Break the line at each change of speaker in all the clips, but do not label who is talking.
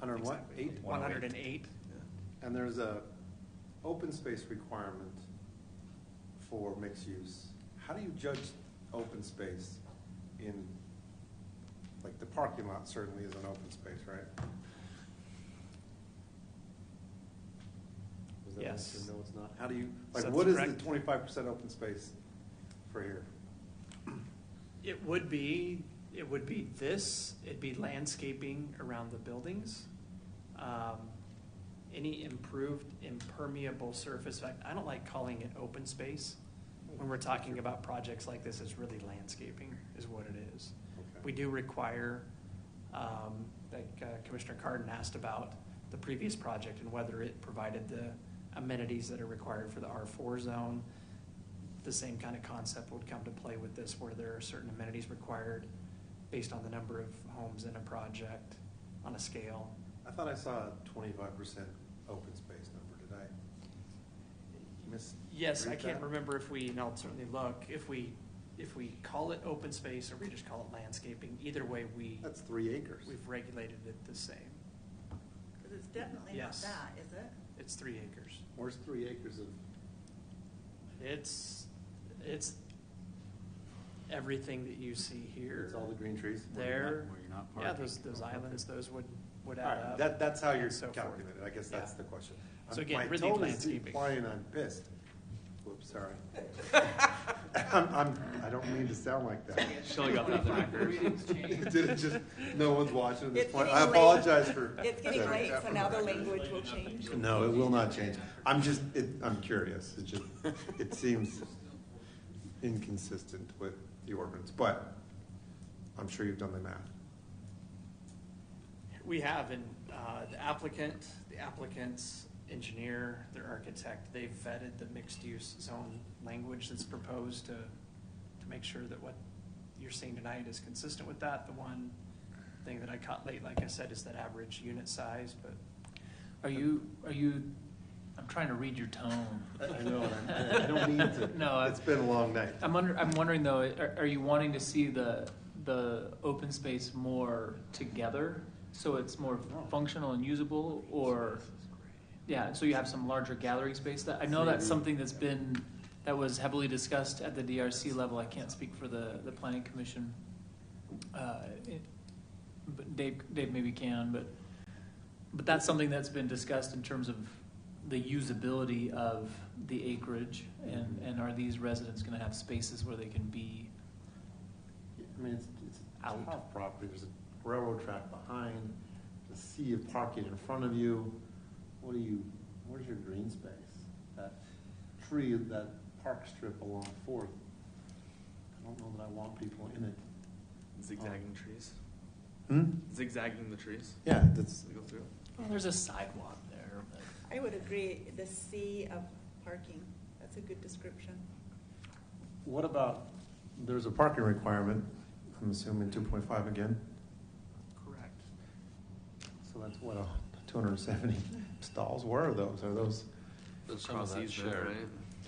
Hundred what,
Exactly.
eight?
One-
108.
108.
And there's a open space requirement for mixed use. How do you judge open space in, like, the parking lot certainly is an open space, right? Is that
Yes.
answer, No, it's not. How do you, like,
That's
what is the
correct.
twenty-five percent open space for here?
It would be, it would be this, it'd be landscaping around the buildings. Um, Any improved impermeable surface, I I don't like calling it open space. When we're talking about projects like this, it's really landscaping is what it is.
Okay.
We do require, um, like uh, Commissioner Carden asked about the previous project and whether it provided the amenities that are required for the R4 zone. The same kind of concept would come to play with this where there are certain amenities required based on the number of homes in a project on a scale.
I thought I saw a twenty-five percent open space number. Did I miss?
Yes, I
read
can't
that?
remember if we, and I'll certainly look, if we, if we call it open space or we just call it landscaping, either way, we,
That's three acres.
we've regulated it the same.
Because it's definitely not
Yes.
that, is it?
It's three acres.
Where's three acres of,
It's, it's everything that you see here.
it's all the green trees?
There,
Where you're not
yeah,
parking.
those, those islands, those would, would
All
add
right,
up.
that, that's how you're
and so forth.
calculating it, I guess that's
Yeah.
the question.
So
I'm-
again,
my
really
tone is
landscaping.
Implying I'm pissed. Whoops, sorry. I'm, I'm, I don't mean to sound like that.
Shelley got that on the record.
Did it just, no one's watching at this
It's
point,
getting
I
late.
apologize for.
It's getting
that.
late, so now the language will change.
No, it will not change, I'm just, it, I'm curious, it just, it seems inconsistent with the ordinance, but I'm sure you've done the math.
We have, and uh, the applicant, the applicant's engineer, their architect, they've vetted the mixed-use zone language that's proposed to, to make sure that what you're seeing tonight is consistent with that. The one thing that I caught late, like I said, is that average unit size, but
Are you, are you, I'm trying to read your tone.
I know, and I'm- I don't mean to.
No, I-
It's been a long night.
I'm under, I'm wondering though, are, are you wanting to see the, the open space more together? So it's more
Oh.
functional and usable or, yeah, so you have some larger gathering space that, I know that's something that's been, that was heavily discussed at the DRC level. I can't speak for the, the planning commission. Uh, it- But Dave, Dave maybe can, but, but that's something that's been discussed in terms of the usability of the acreage and,
Mm-hmm.
and are these residents gonna have spaces where they can be?
I mean, it's, it's a
Out.
tough property, there's a railroad track behind, a sea of parking in front of you. What do you, where's your green space? That tree, that park strip along Fourth, I don't know that I want people in it.
Zigzagging trees.
Hmm?
Zigzagging the trees.
Yeah, that's,
As we go through.
Well, there's a sidewalk there, but.
I would agree, the sea of parking, that's a good description.
what about, there's a parking requirement, I'm assuming two point five again,
correct.
so that's what, two hundred and seventy stalls, where are those, are those,
But some of
Cross
that's
easement,
shared
right?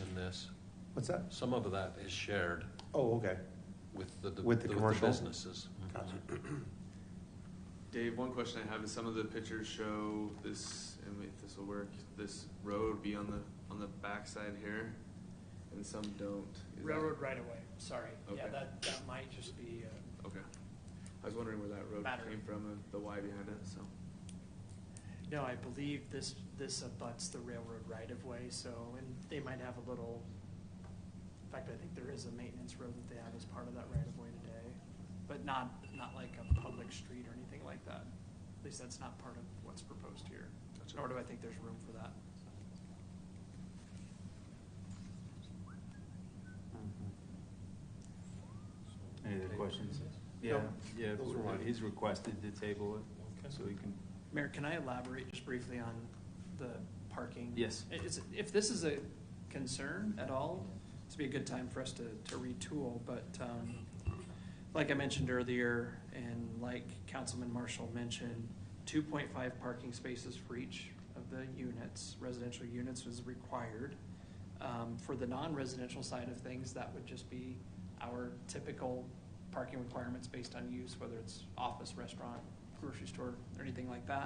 in this.
what's that?
Some of that is shared
Oh, okay.
with the,
With the commercial?
businesses.
Gotcha.
Dave, one question I have is some of the pictures show this, and if this will work, this road be on the on the backside here, and some don't. Is that-
Railroad right away, sorry. Yeah,
Okay.
that, that might just be, uh,
Okay. I was wondering where that road
Battery.
came from and the why behind it. So
no, I believe this, this abuts the railroad right of way, so, and they might have a little, in fact, I think there is a maintenance road that they have as part of that right of way today, but not, not like a public street or anything like that. At least that's not part of what's proposed here,
Gotcha.
nor do I think there's room for that.
Any other questions? Yeah,
Nope.
yeah,
Those were mine.
he's requested to table it, so he can,
Mayor, can I elaborate just briefly on the parking?
Yes.
I- is- if this is a concern at all, this would be a good time for us to, to retool, but, um, like I mentioned earlier, and like Councilman Marshall mentioned, two point five parking spaces for each of the units, residential units is required. Um, for the non-residential side of things, that would just be our typical parking requirements based on use, whether it's office, restaurant, grocery store, or anything like that.